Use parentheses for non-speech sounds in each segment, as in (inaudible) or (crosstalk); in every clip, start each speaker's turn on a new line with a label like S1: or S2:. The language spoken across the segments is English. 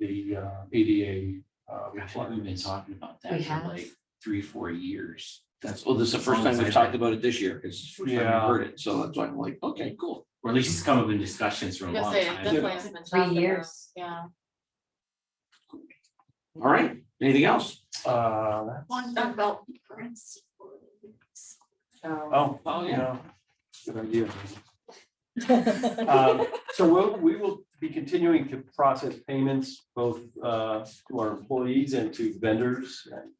S1: the uh, ADA. uh,
S2: Gosh, I think We've been
S1: requirements.
S2: talking about
S3: We
S2: that for
S3: have.
S2: like three, four years.
S4: That's, well, this is the first
S2: Sounds
S4: time we've
S2: like
S4: talked
S2: that.
S4: about it this year, because it's the first time
S1: Yeah.
S4: I've heard it, so that's why I'm like, okay, cool.
S2: Or at least it's come up in discussions for a
S5: I'm gonna
S2: long
S5: say, it
S2: time.
S5: definitely has been
S3: Three
S5: talked
S6: (laughs)
S5: about,
S3: years.
S5: Yeah.
S4: All right, anything else?
S1: Uh,
S5: One about currency.
S3: So,
S1: oh,
S4: Oh,
S1: yeah. Good idea. Um, So we'll, we will be continuing to process payments both uh, to our employees and to vendors and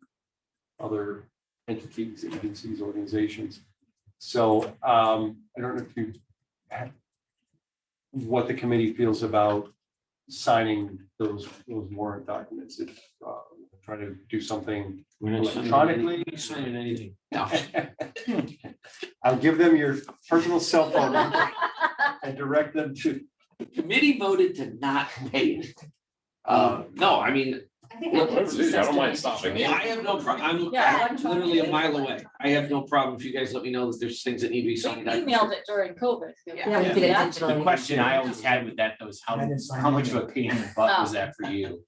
S1: other entities, agencies, organizations. So um, I don't know if you have what the committee feels about signing those, those warrant documents. If uh, try to do something
S4: We're not signing
S1: electronically.
S4: anything. Signing anything. No,
S1: (laughs) I'll give them your personal cell phone number and direct them to
S4: the committee voted to not pay it. Uh, no, I mean,
S3: I think
S4: Well,
S3: I did
S7: let's do that. I don't mind
S3: successfully.
S4: I
S7: stopping.
S4: mean, I have no problem, I'm
S5: Yeah,
S4: I'm literally a mile away. I have no problem if you guys let me know that there's things that need to be
S5: (laughs) We
S4: signed.
S5: emailed it during COVID. didn't
S3: Yeah, we did it
S5: Yeah.
S2: The
S3: digitally.
S2: question I always had with that though is how,
S8: I didn't sign
S2: how much of
S8: either.
S2: a pain in the butt was that for you?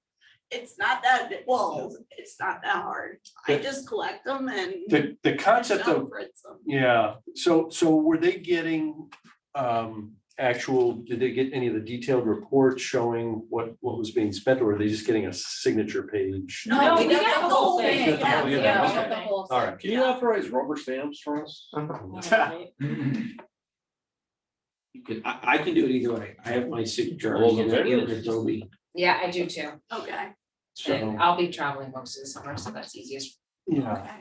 S9: it's not that, well, it's not that hard. I just collect them and.
S1: the, the concept of
S9: don't print them.
S1: Yeah, so, so were they getting, um, actual, did they get any of the detailed reports showing what, what was being spent, or were they just getting a signature page?
S5: No, we
S9: got
S5: got the whole
S1: Got
S5: thing.
S1: the
S5: Yeah,
S1: whole
S5: we
S1: thing,
S5: got
S1: okay.
S5: the whole
S1: All right.
S7: Can you authorize rubber stamps for us?
S5: thing.
S4: You can, I, I can do it either way. I have my signature.
S7: All those in
S4: Yeah,
S7: favor?
S4: it's Adobe.
S3: Yeah, I do too.
S9: Okay,
S1: So,
S3: And I'll be traveling most of the summer, so that's easiest.
S1: yeah,
S9: okay.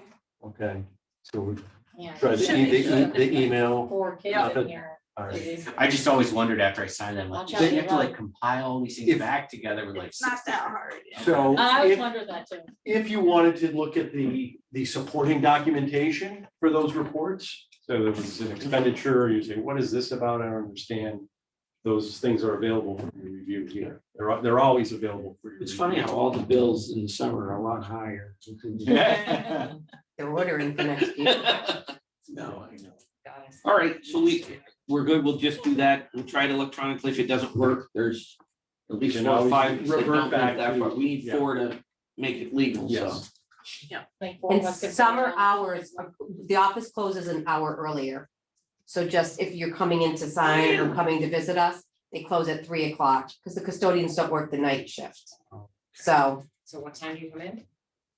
S1: okay, so we
S5: Yeah.
S1: try
S5: Should
S1: the,
S5: be,
S1: e- the,
S5: should
S1: e- the
S5: be.
S1: email.
S5: Four
S1: Yeah.
S5: kids in here.
S1: All right.
S2: I just always wondered after I signed that,
S5: I'll
S2: like,
S5: tell
S2: you
S5: you
S2: have to
S5: what.
S2: like compile all these
S1: If-
S2: things back together with like. (laughs)
S9: It's not that hard.
S1: So
S5: I always
S1: if,
S5: wondered that too.
S1: if you wanted to look at the, the supporting documentation for those reports, so there was an expenditure, you say, what is this about? I don't understand. Those things are available for your review here. They're, al- they're always available for your.
S4: It's
S1: review.
S4: funny how all the bills in the summer are a lot (laughs) higher.
S2: Yeah.
S3: They're ordering for next
S4: (laughs) No, I know.
S3: Got it.
S4: All right, so we, we're good. We'll just do that. We'll try it electronically. If it doesn't work, there's at least
S1: Then
S4: four or
S1: always
S4: five. that
S1: revert
S4: don't live
S1: back
S4: that
S1: to-
S4: far. We need
S1: yeah.
S4: four to make it legal, so.
S1: Yes.
S5: Like four
S3: And
S5: of us could
S3: summer
S5: sit down.
S3: hours, uh, the office closes an hour earlier. So just if you're coming in to sign or coming to visit us, they close at three o'clock because the custodians don't work the night shift. So
S6: So what time do you come in?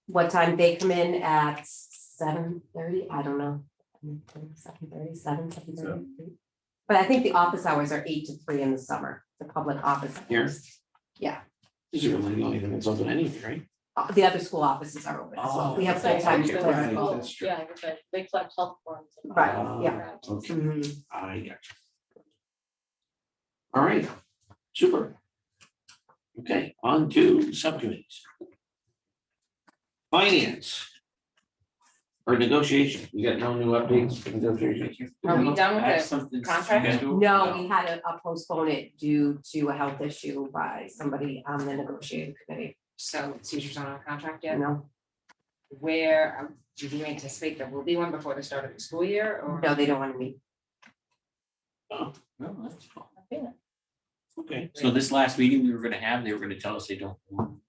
S3: what time they come in at seven thirty, I don't know. Seven thirty, seven, seven thirty. But I think the office hours are eight to three in the summer, the public office.
S4: Here?
S3: hours.
S4: This is really the only thing that's open anyway, right?
S3: Uh, The other school offices are open as well. We have
S5: It's like
S3: full-time.
S4: Oh, okay,
S5: after
S4: right,
S5: school.
S4: that's true.
S5: Yeah, it's like they collect health forms. and-
S3: Right, yeah.
S4: Okay,
S3: Mhm.
S4: I got you. All right, super. Okay, on to subcommittees. Finance. Or negotiation. You got no new updates for negotiations?
S3: Are we done with
S2: I have
S3: the
S2: something-
S6: contract?
S2: you guys do it?
S3: No, we had to uh, postpone it due to a health issue by somebody on the negotiating committee,
S6: So teachers aren't on contract
S3: you
S6: yet,
S3: know?
S6: where, um, do you anticipate there will be one before the start of the school year or?
S3: No, they don't want to meet.
S4: No, that's fine.
S5: I feel it.
S4: Okay.
S2: So this last meeting we were gonna have, they were gonna tell us they don't. want-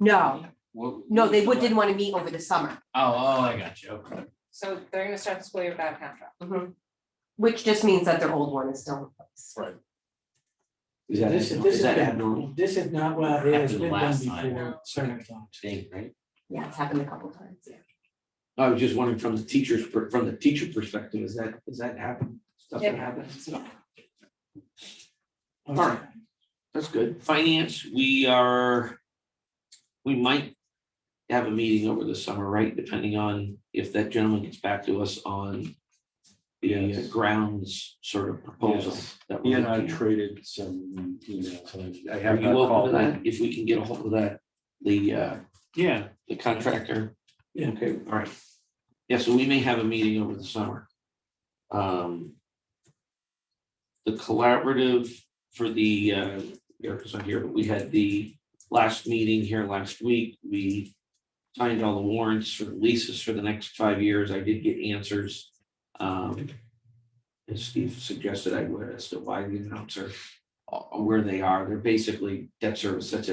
S3: No,
S2: What-
S3: no, they
S2: what-
S3: would, didn't want to meet over the summer,
S2: Oh, oh, I got you, okay.
S6: So they're gonna start the school year without a contract.
S3: which just means that their old one is still in place.
S4: Is that,
S8: This-
S4: is
S8: this is
S4: that
S8: bad.
S4: abnormal
S8: This is not what
S2: Happened
S8: it has been done
S2: last time.
S8: before, several times.
S2: thing, right?
S3: Yeah, it's happened a couple times, yeah.
S4: I was just wondering from the teacher's, per- from the teacher perspective, is that, is that happen? Stuff that
S6: Yeah.
S4: happens? All right. That's good. Finance, we are, we might have a meeting over the summer, right? Depending on if that gentleman gets back to us on the uh,
S1: Yes.
S4: grounds sort of proposal.
S1: Yes.
S4: that
S1: He
S4: we're
S1: and I
S4: looking at.
S1: traded some emails, and I
S4: Are
S1: have
S4: you
S1: not
S4: open to
S1: called.
S4: that? If we can get a hold of that, the, uh,
S1: Yeah.
S4: the contractor.
S1: Yeah.
S4: Okay, all right. Yeah, so we may have a meeting over the summer. Um. The collaborative for the, uh, Erica's not here, but we had the last meeting here last week. We signed all the warrants for leases for the next five years. I did get answers. Um. As Steve suggested, I would as to why the announcer, uh, where they are. They're basically debt service, that's it.